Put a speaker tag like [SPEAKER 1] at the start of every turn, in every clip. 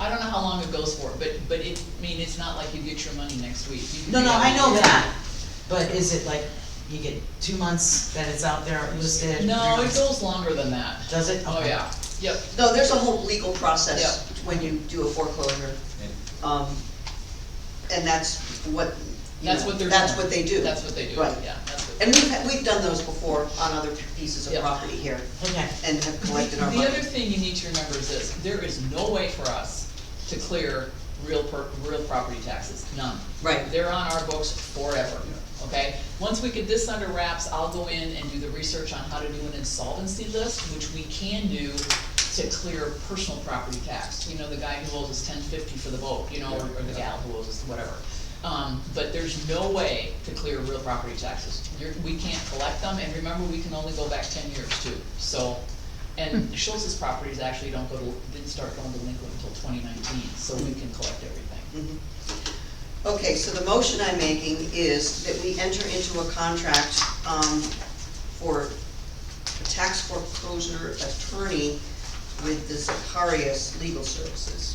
[SPEAKER 1] how long it goes for, but, but it, I mean, it's not like you get your money next week. You can
[SPEAKER 2] No,
[SPEAKER 1] be
[SPEAKER 2] no,
[SPEAKER 1] out
[SPEAKER 2] I know
[SPEAKER 1] there.
[SPEAKER 2] that, but is it like, you get two months that it's out there listed?
[SPEAKER 1] No, it goes longer than that.
[SPEAKER 2] Does it?
[SPEAKER 1] Oh,
[SPEAKER 2] Okay.
[SPEAKER 1] yeah, yep,
[SPEAKER 3] No, there's a whole legal process when you do a foreclosure. Um, And that's what, you
[SPEAKER 1] that's
[SPEAKER 3] know,
[SPEAKER 1] what they're.
[SPEAKER 3] That's
[SPEAKER 1] doing.
[SPEAKER 3] what they do.
[SPEAKER 1] That's what they do,
[SPEAKER 3] Right.
[SPEAKER 1] yeah, that's what.
[SPEAKER 3] And we've, had- we've done those before on other pieces of
[SPEAKER 1] Yeah.
[SPEAKER 3] property here
[SPEAKER 2] Okay,
[SPEAKER 3] and have collected our
[SPEAKER 1] The other
[SPEAKER 3] money.
[SPEAKER 1] thing you need to remember is this, there is no way for us to clear real per, real property taxes, none.
[SPEAKER 3] Right.
[SPEAKER 1] They're on our books forever, okay? Once we get this under wraps, I'll go in and do the research on how to do an insolvency list, which we can do to clear personal property tax. You know, the guy who owes us ten fifty for the boat, you know, or or the gal who owes us whatever. Um, but there's no way to clear real property taxes. You're, we can't collect them, and remember, we can only go back ten years too, so. And Schultz's properties actually don't go to, didn't start going delinquent until twenty nineteen, so we can collect everything.
[SPEAKER 3] Mhm. Okay, so the motion I'm making is that we enter into a contract um, for a tax foreclosure attorney with the Zacharias Legal Services.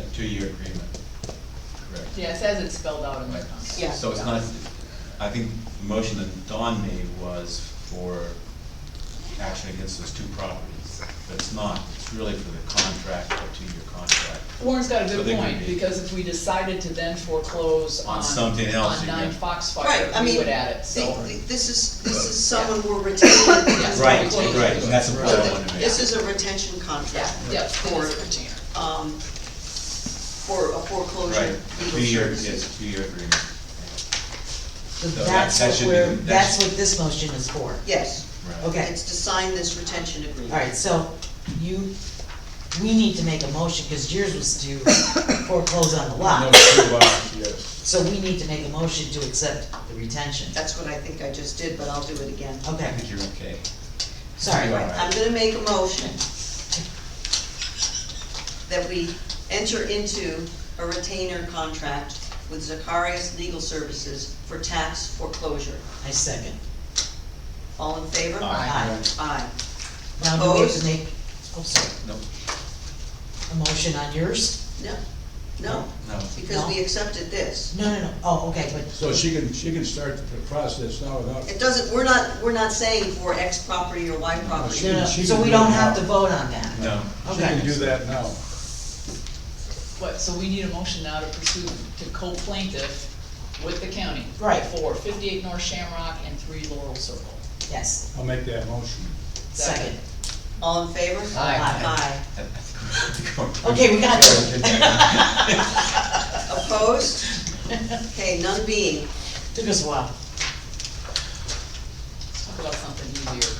[SPEAKER 4] A two-year agreement, correct.
[SPEAKER 1] Yeah, it says it's spelled out in the
[SPEAKER 4] Right.
[SPEAKER 1] contract.
[SPEAKER 3] Yeah.
[SPEAKER 4] So it's not, I think the motion that Don made was for action against those two properties, but it's not, it's really for the contract, a two-year contract.
[SPEAKER 1] Warren's got a
[SPEAKER 4] So they
[SPEAKER 1] good
[SPEAKER 4] could
[SPEAKER 1] point,
[SPEAKER 4] be-
[SPEAKER 1] because if we decided to then foreclose
[SPEAKER 4] On
[SPEAKER 1] on,
[SPEAKER 4] something else,
[SPEAKER 1] on
[SPEAKER 4] you
[SPEAKER 1] nine
[SPEAKER 4] get-
[SPEAKER 1] Foxfire,
[SPEAKER 3] Right, I
[SPEAKER 1] we
[SPEAKER 3] mean,
[SPEAKER 1] would add it, so.
[SPEAKER 3] the- the- this is, this is someone we're retaining.
[SPEAKER 1] Yeah.
[SPEAKER 4] Right,
[SPEAKER 1] Foreclosure.
[SPEAKER 4] right, and that's the point I wanted to make.
[SPEAKER 3] This is a retention contract.
[SPEAKER 1] Yeah, yeah,
[SPEAKER 3] For,
[SPEAKER 1] it is retainer.
[SPEAKER 3] um, for a
[SPEAKER 4] Right,
[SPEAKER 3] foreclosure
[SPEAKER 4] a
[SPEAKER 3] legal
[SPEAKER 4] two-year,
[SPEAKER 3] services.
[SPEAKER 4] yes, two-year agreement,
[SPEAKER 2] so
[SPEAKER 4] So that-
[SPEAKER 2] that's
[SPEAKER 4] that
[SPEAKER 2] what
[SPEAKER 4] should be-
[SPEAKER 2] we're,
[SPEAKER 4] that
[SPEAKER 2] that's
[SPEAKER 4] should-
[SPEAKER 2] what this motion is for.
[SPEAKER 3] Yes,
[SPEAKER 4] right.
[SPEAKER 2] Okay.
[SPEAKER 3] it's to sign this retention agreement.
[SPEAKER 2] Alright, so you, we need to make a motion, cause yours was to foreclose on the
[SPEAKER 5] No,
[SPEAKER 2] lot.
[SPEAKER 5] two lots,
[SPEAKER 4] uh,
[SPEAKER 5] yes.
[SPEAKER 2] So we need to make a motion to accept the retention.
[SPEAKER 3] That's what I think I just did, but I'll do it again.
[SPEAKER 4] I
[SPEAKER 2] Okay,
[SPEAKER 4] think you're okay.
[SPEAKER 2] sorry.
[SPEAKER 4] You are.
[SPEAKER 3] I'm gonna make a motion that we enter into a retainer contract with Zacharias Legal Services for tax foreclosure.
[SPEAKER 2] I second.
[SPEAKER 3] All in favor?
[SPEAKER 2] Aye.
[SPEAKER 3] Aye.
[SPEAKER 2] Now, do we have
[SPEAKER 3] Opposed?
[SPEAKER 2] to make, oh, sorry,
[SPEAKER 4] No,
[SPEAKER 2] a motion on yours?
[SPEAKER 3] No, no,
[SPEAKER 4] no,
[SPEAKER 3] because we accepted this.
[SPEAKER 2] No, no, no, oh, okay, but
[SPEAKER 5] So she can, she can start the process now without,
[SPEAKER 3] It doesn't, we're not, we're not saying for X property or Y property.
[SPEAKER 2] No, no,
[SPEAKER 5] She
[SPEAKER 2] so
[SPEAKER 5] can
[SPEAKER 2] we
[SPEAKER 5] do
[SPEAKER 2] don't
[SPEAKER 5] it
[SPEAKER 2] have
[SPEAKER 5] now.
[SPEAKER 2] to vote on that?
[SPEAKER 4] no.
[SPEAKER 5] she can do
[SPEAKER 2] Okay,
[SPEAKER 5] that now.
[SPEAKER 1] But, so we need a motion now to pursue, to co-plaintiff with the county.
[SPEAKER 2] Right.
[SPEAKER 1] For fifty-eight North Shamrock and three Laurel Circle.
[SPEAKER 2] yes,
[SPEAKER 5] I'll make that motion.
[SPEAKER 2] second.
[SPEAKER 3] All in favor?
[SPEAKER 1] Aye.
[SPEAKER 3] Aye.
[SPEAKER 4] I- I think we're- I think we're-
[SPEAKER 2] Okay, we got
[SPEAKER 4] Yeah,
[SPEAKER 2] there.
[SPEAKER 3] Opposed? Okay, none being.
[SPEAKER 2] Took us a while.
[SPEAKER 1] Let's talk about something easier.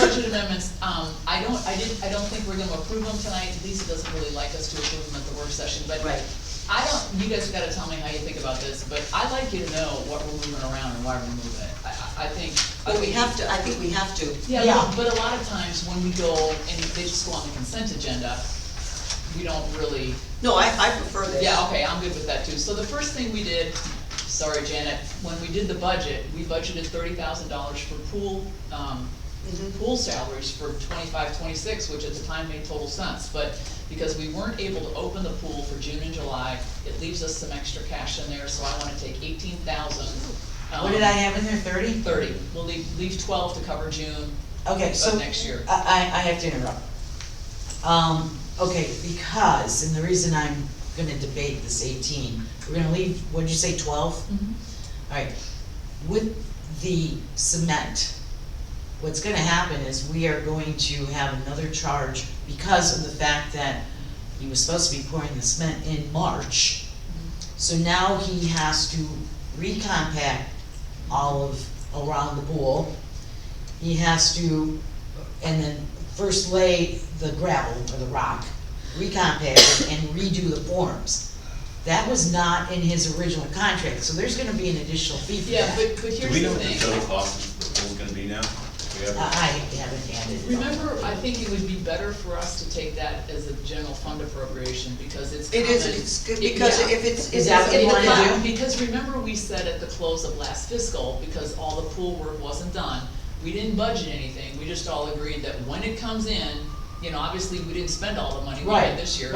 [SPEAKER 1] Budget amendments, um, I don't, I didn't, I don't think we're gonna approve them tonight, Lisa doesn't really like us to approve them at the work session, but
[SPEAKER 3] Right.
[SPEAKER 1] I don't, you guys gotta tell me how you think about this, but I'd like you to know what we're moving around and why we're moving it. I, I, I think.
[SPEAKER 3] But we have to, I think we have to.
[SPEAKER 1] Yeah,
[SPEAKER 2] Yeah.
[SPEAKER 1] but- but a lot of times when we go and they just go on the consent agenda, we don't really,
[SPEAKER 3] No, I, I prefer this.
[SPEAKER 1] yeah, okay, I'm good with that too. So the first thing we did, sorry Janet, when we did the budget, we budgeted thirty thousand dollars for pool, um,
[SPEAKER 3] Mhm.
[SPEAKER 1] pool salaries for 25, 26, which at the time made total sense, but because we weren't able to open the pool for June and July, it leaves us some extra cash in there, so I wanna take eighteen thousand. um,
[SPEAKER 2] What did I have in there, thirty?
[SPEAKER 1] Thirty, we'll leave, leave twelve to cover June,
[SPEAKER 2] Okay, so.
[SPEAKER 1] But next year.
[SPEAKER 2] I, I, I have to interrupt. Um, okay, because, and the reason I'm gonna debate this eighteen, we're gonna leave, what'd you say, twelve?
[SPEAKER 3] Mm-hmm.
[SPEAKER 2] Alright, with the cement, what's gonna happen is we are going to have another charge because of the fact that he was supposed to be pouring the cement in March. So now he has to recompact all of, around the pool. He has to, and then first lay the gravel or the rock, recompact it and redo the forms. That was not in his original contract, so there's gonna be an additional fee for
[SPEAKER 1] Yeah,
[SPEAKER 2] that.
[SPEAKER 1] but, but
[SPEAKER 4] Do
[SPEAKER 1] here's
[SPEAKER 4] we know
[SPEAKER 1] the
[SPEAKER 4] what the total
[SPEAKER 1] thing. Uh,
[SPEAKER 4] cost of the pool's gonna be now? Do we have-
[SPEAKER 2] I I haven't added it. all.
[SPEAKER 1] Remember, I think it would be better for us to take that as a general fund appropriation, because it's
[SPEAKER 3] It is,
[SPEAKER 1] common.
[SPEAKER 3] it's good,
[SPEAKER 1] It-
[SPEAKER 3] because
[SPEAKER 1] yeah.
[SPEAKER 3] if it's,
[SPEAKER 2] Is
[SPEAKER 3] it's
[SPEAKER 2] that what
[SPEAKER 3] in
[SPEAKER 2] you
[SPEAKER 3] the
[SPEAKER 2] wanna
[SPEAKER 3] plan.
[SPEAKER 2] do?
[SPEAKER 1] But- Because remember, we said at the close of last fiscal, because all the pool work wasn't done, we didn't budget anything, we just all agreed that when it comes in, you know, obviously, we didn't spend all the money we
[SPEAKER 2] Right.
[SPEAKER 1] had this year,